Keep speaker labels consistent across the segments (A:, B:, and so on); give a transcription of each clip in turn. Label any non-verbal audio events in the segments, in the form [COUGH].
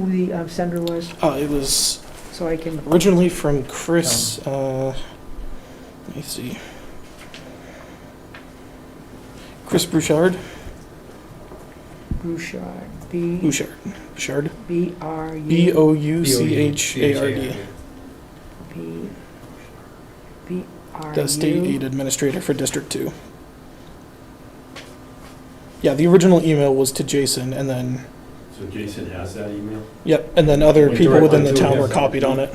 A: who the uh, sender was,
B: Uh, it was
A: so I can,
B: originally from Chris. Uh, let me see. Chris Bouchard.
A: Bouchard, B,
B: Bouchard. Bouchard.
A: B R U.
B: B O U C H A R D.
A: B, B R
B: The state
A: U.
B: aid administrator for District 2. Yeah, the original email was to Jason, and then,
C: So Jason has that email,
B: yep, and then other
C: Wait,
B: people
C: direct
B: within the
C: line to
B: town
C: him.
B: were copied on it.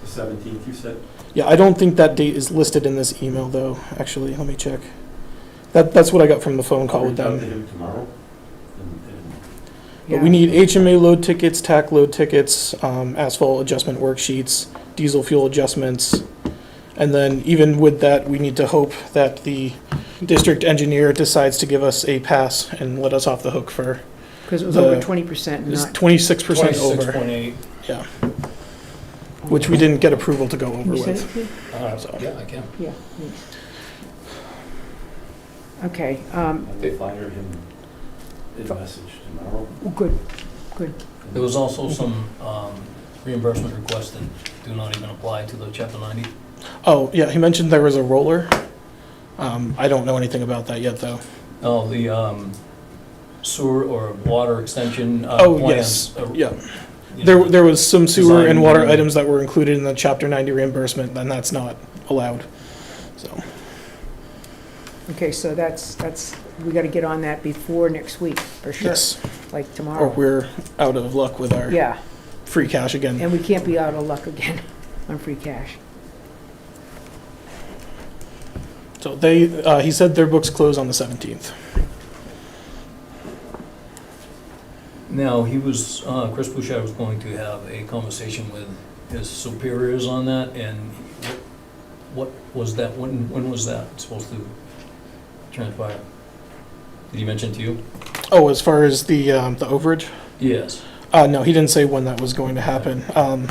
C: the seventeenth, you said?
B: Yeah, I don't think that date is listed in this email, though, actually, let me check. That, that's what I got from the phone call with
C: Reach out
B: them.
C: to him tomorrow, and, and
B: But
A: Yeah.
B: we need HMA load tickets, TAC load tickets, um, asphalt adjustment worksheets, diesel fuel adjustments. And then even with that, we need to hope that the district engineer decides to give us a pass and let us off the hook for,
A: Because it was over
B: the-
A: twenty percent,
B: it's
A: not.
B: twenty-six percent
D: Twenty-six
B: over,
D: point eight.
B: which we didn't get approval to go
A: Can
B: over
A: you send
B: with.
A: it, please?
B: So-
D: Uh, Yeah, I can.
A: Yeah. thanks. Okay, um,
C: I will fire him a message tomorrow.
A: good,
D: There was also some um, reimbursement requests that do not even apply to the chapter ninety.
B: Oh, yeah, he mentioned there was a roller. Um, I don't know anything about that yet, though. Oh.
D: No, the um, sewer or water extension uh,
B: Oh,
D: plans. uh,
B: Yeah,
D: you know,
B: there, there was some sewer and
D: Design.
B: water items that were included in the chapter ninety reimbursement, and that's not allowed, so.
A: okay, so that's, that's, we gotta get on that before next week, for sure,
B: Yes,
A: like
B: or
A: tomorrow.
B: we're out of luck with our
A: Yeah,
B: free cash again.
A: and we can't be out of luck again [LAUGHS] on free cash.
B: So they, uh, he said their books close on the 17th.
D: Now, he was, uh, Chris Bouchard was going to have a conversation with his superiors on that, and what what was that, when, when was that supposed to transpire? Did he mention to you?
B: Oh, as far as the, um, the overage?
D: Yes.
B: Uh, no, he didn't say when that was going to happen. Um,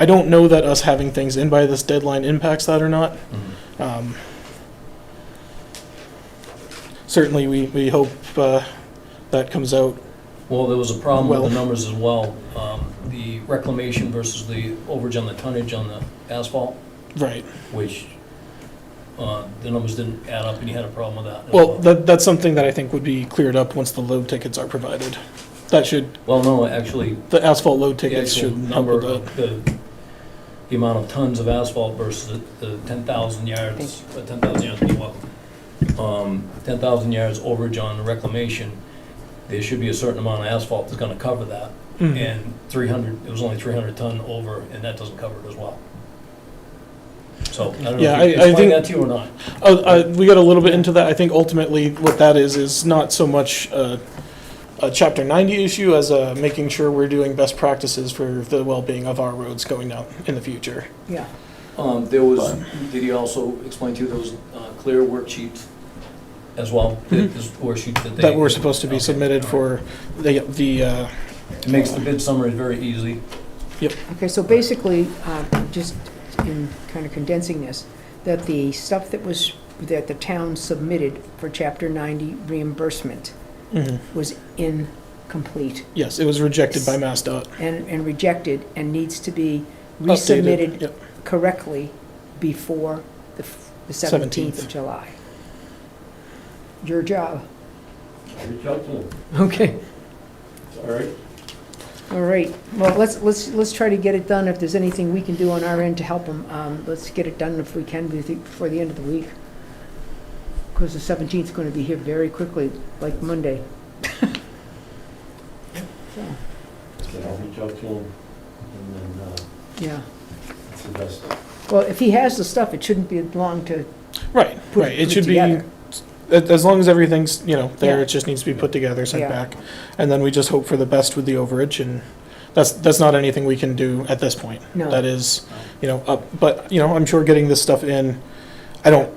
B: I don't know that us having things in by this deadline impacts that or not.
D: Mm-hmm.
B: Um, certainly, we, we hope, uh, that comes out.
D: Well, there was a problem with
B: Well-
D: the numbers as well. Um, The reclamation versus the overage on the tonnage on the asphalt,
B: Right.
D: which uh, the numbers didn't add up, and you had a problem with that. as
B: Well, that, that's something that I think would be cleared up once the load tickets are provided. That should,
D: Well, no, actually,
B: the asphalt load
D: the
B: tickets
D: actual
B: should help with
D: number
B: that.
D: of the, the amount of tons of asphalt versus the the 10,000 yards, uh, 10,000 yards, you're welcome. Um, 10,000 yards overage on the reclamation, there should be a certain amount of asphalt that's gonna cover that.
B: Mhm.
D: and 300, it was only 300 ton over, and that doesn't cover it as well. So, I don't
B: Yeah,
D: know if you
B: I- I
D: can explain
B: think-
D: that to you or not.
B: Oh, uh, we got a little bit into that. I think ultimately what that is, is not so much a, a chapter ninety issue as uh making sure we're doing best practices for the well-being of our roads going out in the future.
A: Yeah,
D: Um, There was, did he also explain to you those clear worksheets? As well, the
B: Mhm.
D: the worksheets that they...
B: That were supposed to be submitted
D: Okay.
B: for the, the, uh,
D: It makes the bid summary very easy.
A: okay, so basically, uh, just in kind of condensing this, that the stuff that was, that the town submitted for chapter ninety reimbursement
B: mhm.
A: was incomplete
B: yes, it was rejected by MassDOT.
A: and, and rejected and needs to be
B: Updated.
A: resubmitted
B: Yep.
A: correctly before the f- the 17th of
B: Seventeenth.
A: July. Your job.
C: I'll Reach out to him,
A: Okay.
C: all right?
A: All right, well, let's, let's, let's try to get it done. If there's anything we can do on our end to help them, um, let's get it done if we can be- before the end of the week. Because the 17th is going to be here very quickly, like Monday. So,
C: Then I'll reach out to him, and then, uh,
A: Yeah,
C: it's the best.
A: well, if he has the stuff, it shouldn't be long to
B: Right,
A: put
B: right.
A: it put
B: It
A: it
B: should be,
A: together.
B: a- as long as everything's, you know, there,
A: Yeah.
B: it just needs to be put together,
A: Yeah.
B: sent back. And then we just hope for the best with the overage and that's, that's not anything we can do at this point.
A: No.
B: that is, you know, up, but, you know, I'm sure getting this stuff in, I don't,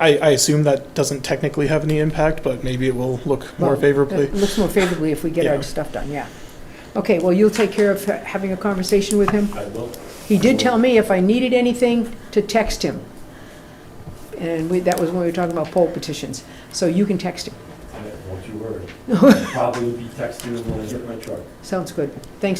B: I, I assume that doesn't technically have any impact, but maybe it will look more
A: Well,
B: favorably.
A: It looks more favorably if we get
B: Yeah.
A: our stuff done, yeah. Okay, well, you'll take care of ha- having a conversation with him?
C: I will,
A: He did tell me if I needed anything, to text him. And we, that was when we were talking about poll petitions. So you can text him.
B: [LAUGHS]
C: I- don't you worry. I'll Probably be texting him when I get my truck.
A: Sounds good. Thanks,